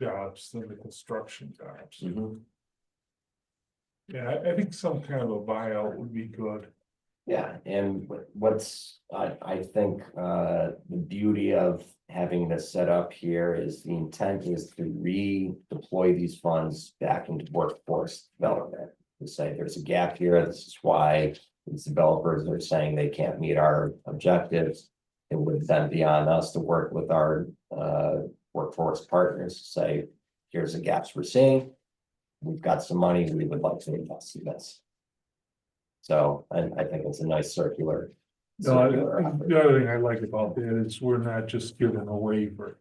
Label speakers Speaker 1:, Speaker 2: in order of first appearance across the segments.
Speaker 1: jobs than the construction jobs. Yeah, I, I think some kind of a buyout would be good.
Speaker 2: Yeah, and wh- what's, I, I think, uh, the beauty of having this set up here is the intent is to redeploy these funds back into workforce development. To say there's a gap here, this is why these developers are saying they can't meet our objectives. It would then be on us to work with our, uh, workforce partners to say, here's the gaps we're seeing. We've got some money, we would like to invest in this. So I, I think it's a nice circular.
Speaker 1: No, I-
Speaker 2: circular effort.
Speaker 1: the other thing I like about that is we're not just giving a waiver,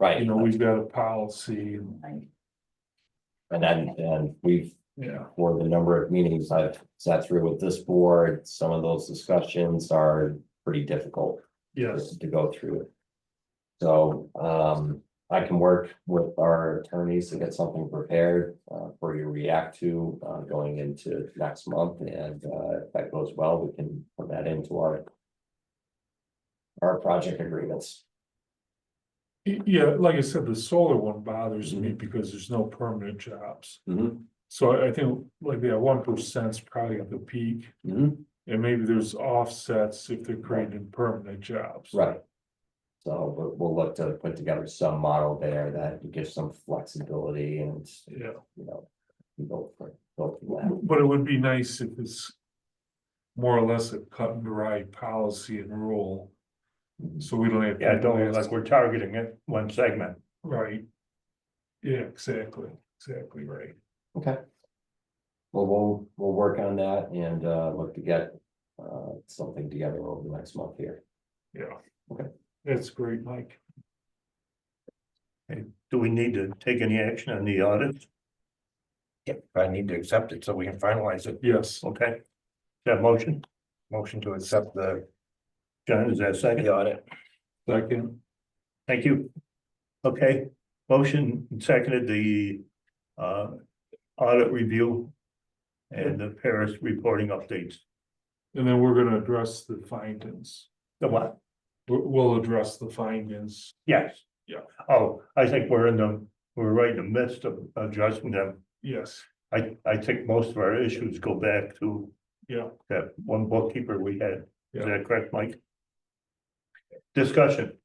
Speaker 1: you
Speaker 2: Right,
Speaker 1: know, we've got a policy and,
Speaker 2: and then, and we've,
Speaker 1: yeah.
Speaker 2: for the number of meetings I've sat through with this board, some of those discussions are pretty difficult.
Speaker 1: Yes,
Speaker 2: To go through it. So, um, I can work with our attorneys to get something prepared, uh, for you to react to, uh, going into next month, and, uh, if that goes well, we can put that into our. Our project agreements,
Speaker 1: Y- yeah, like I said, the solar one bothers me because there's no permanent jobs.
Speaker 2: Mhm.
Speaker 1: So I I think like that one percent's probably at the peak, and maybe there's offsets if they're creating permanent jobs.
Speaker 2: right? So, but we'll look to put together some model there that gives some flexibility and,
Speaker 1: Yeah.
Speaker 2: you know. Go for, go for that.
Speaker 1: But it would be nice if it's. More or less a cut and dry policy and rule, so we don't have.
Speaker 3: Yeah, don't, like, we're targeting it one segment.
Speaker 1: Right. Yeah, exactly, exactly right.
Speaker 2: Okay. Well, we'll, we'll work on that and uh look to get uh something together over the next month here.
Speaker 1: Yeah.
Speaker 2: Okay.
Speaker 1: That's great, Mike.
Speaker 3: Do we need to take any action on the audit?
Speaker 4: Yep, I need to accept it so we can finalize it.
Speaker 1: Yes,
Speaker 3: Okay. That motion,
Speaker 4: Motion to accept the,
Speaker 3: John, is that second?
Speaker 4: the audit.
Speaker 1: second,
Speaker 3: Thank you. Okay, motion seconded the uh audit review. And the Paris reporting updates.
Speaker 1: and then we're gonna address the findings.
Speaker 3: The what?
Speaker 1: We'll, we'll address the findings.
Speaker 3: Yes.
Speaker 1: Yeah.
Speaker 3: Oh, I think we're in the, we're right in the midst of addressing them.
Speaker 1: Yes,
Speaker 3: I I think most of our issues go back to
Speaker 1: yeah,
Speaker 3: that one bookkeeper we had, is
Speaker 1: Yeah.
Speaker 3: that correct, Mike? Discussion,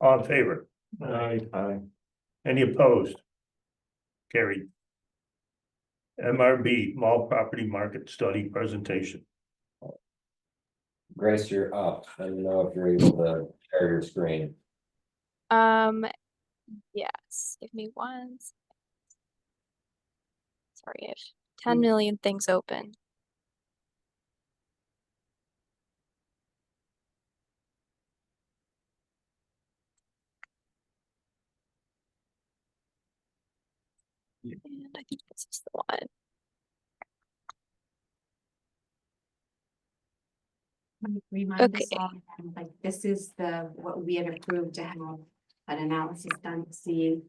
Speaker 3: all in favor, Uh,
Speaker 1: I,
Speaker 3: any opposed? Carried. MRB, mall property market study presentation,
Speaker 2: Grace, you're up. I don't know if you're able to share your screen.
Speaker 5: Um, yes, give me one. s- Sorry, I have ten million things open. And I think this is the one.
Speaker 6: Remind us
Speaker 5: Okay.
Speaker 6: all, um, like, this is the, what we had approved to have an analysis done, to see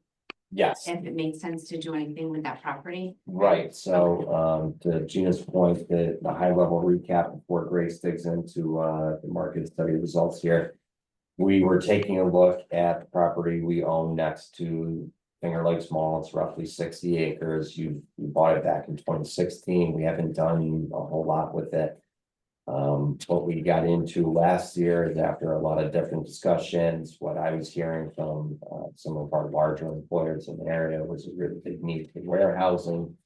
Speaker 2: Yes,
Speaker 6: if it made sense to do anything with that property.
Speaker 2: right. So um to Gina's point, the the high level recap before Grace digs into uh the market study results here. We were taking a look at the property we own next to Finger Lakes Mall. It's roughly sixty acres. You you bought it back in twenty sixteen. We haven't done a whole lot with it. Um, what we got into last year is after a lot of different discussions, what I was hearing from uh some of our larger employers in the area was a really big need for warehousing.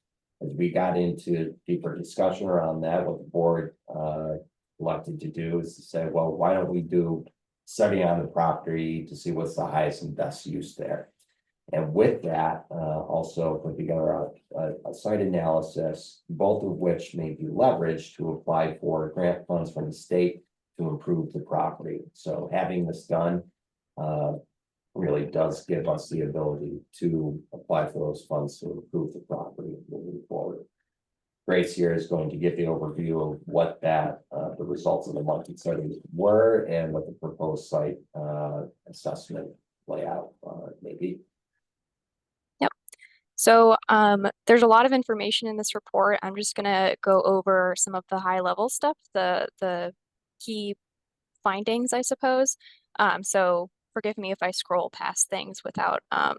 Speaker 2: As we got into deeper discussion around that, what the board uh elected to do is to say, well, why don't we do study on the property to see what's the highest and best use there. And with that, uh, also put together a, a, a site analysis, both of which may be leveraged to apply for grant funds from the state to improve the property. So having this done, uh, really does give us the ability to apply for those funds to improve the property moving forward. Grace here is going to give the overview of what that, uh, the results of the market studies were and what the proposed site, uh, assessment layout, uh, maybe.
Speaker 5: So um, there's a lot of information in this report. I'm just gonna go over some of the high level stuff, the the key findings, I suppose. Um, so forgive me if I scroll past things without um,